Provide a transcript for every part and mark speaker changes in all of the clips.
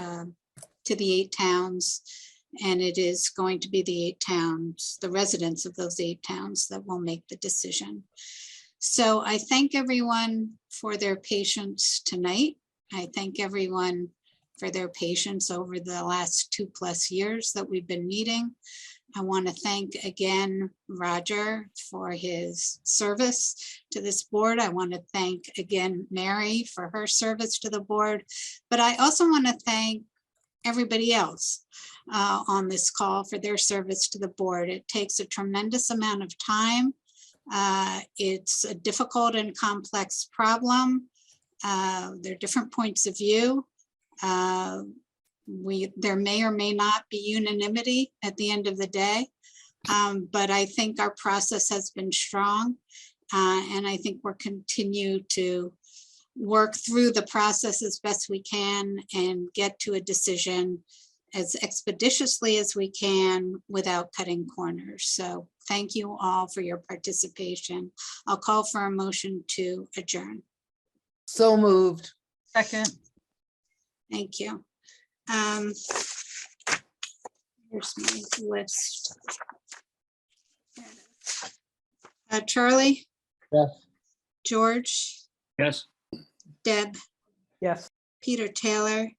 Speaker 1: um, to the eight towns. And it is going to be the eight towns, the residents of those eight towns that will make the decision. So I thank everyone for their patience tonight. I thank everyone for their patience over the last two plus years that we've been meeting. I want to thank again Roger for his service to this board. I want to thank again Mary for her service to the board. But I also want to thank everybody else uh, on this call for their service to the board. It takes a tremendous amount of time. Uh, It's a difficult and complex problem. Uh, There are different points of view. Uh, we, there may or may not be unanimity at the end of the day. Um, but I think our process has been strong. Uh, and I think we'll continue to work through the process as best we can and get to a decision as expeditiously as we can without cutting corners. So thank you all for your participation. I'll call for a motion to adjourn.
Speaker 2: So moved.
Speaker 3: Second,
Speaker 1: Thank you. Um, Here's my list. Uh, Charlie?
Speaker 2: Yes.
Speaker 1: George,
Speaker 4: Yes.
Speaker 1: Deb,
Speaker 3: yes.
Speaker 1: Peter Taylor,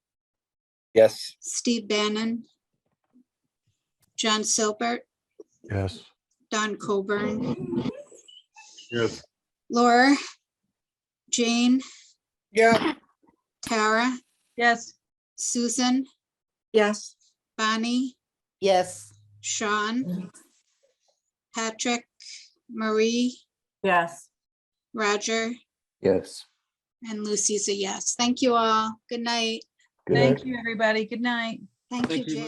Speaker 5: Yes.
Speaker 1: Steve Bannon, John Silbert,
Speaker 5: Yes.
Speaker 1: Don Coburn,
Speaker 5: Yes.
Speaker 1: Laura, Jane,
Speaker 2: Yeah.
Speaker 1: Tara,
Speaker 3: Yes.
Speaker 1: Susan,
Speaker 2: Yes.
Speaker 1: Bonnie,
Speaker 2: Yes.
Speaker 1: Sean, Patrick, Marie,
Speaker 3: Yes.
Speaker 1: Roger,
Speaker 5: Yes.
Speaker 1: And Lucy's a yes. Thank you all. Good night.
Speaker 5: Good night.
Speaker 3: Thank you, everybody. Good night.
Speaker 1: Thank you,
Speaker 4: Thank you.
Speaker 1: Jane.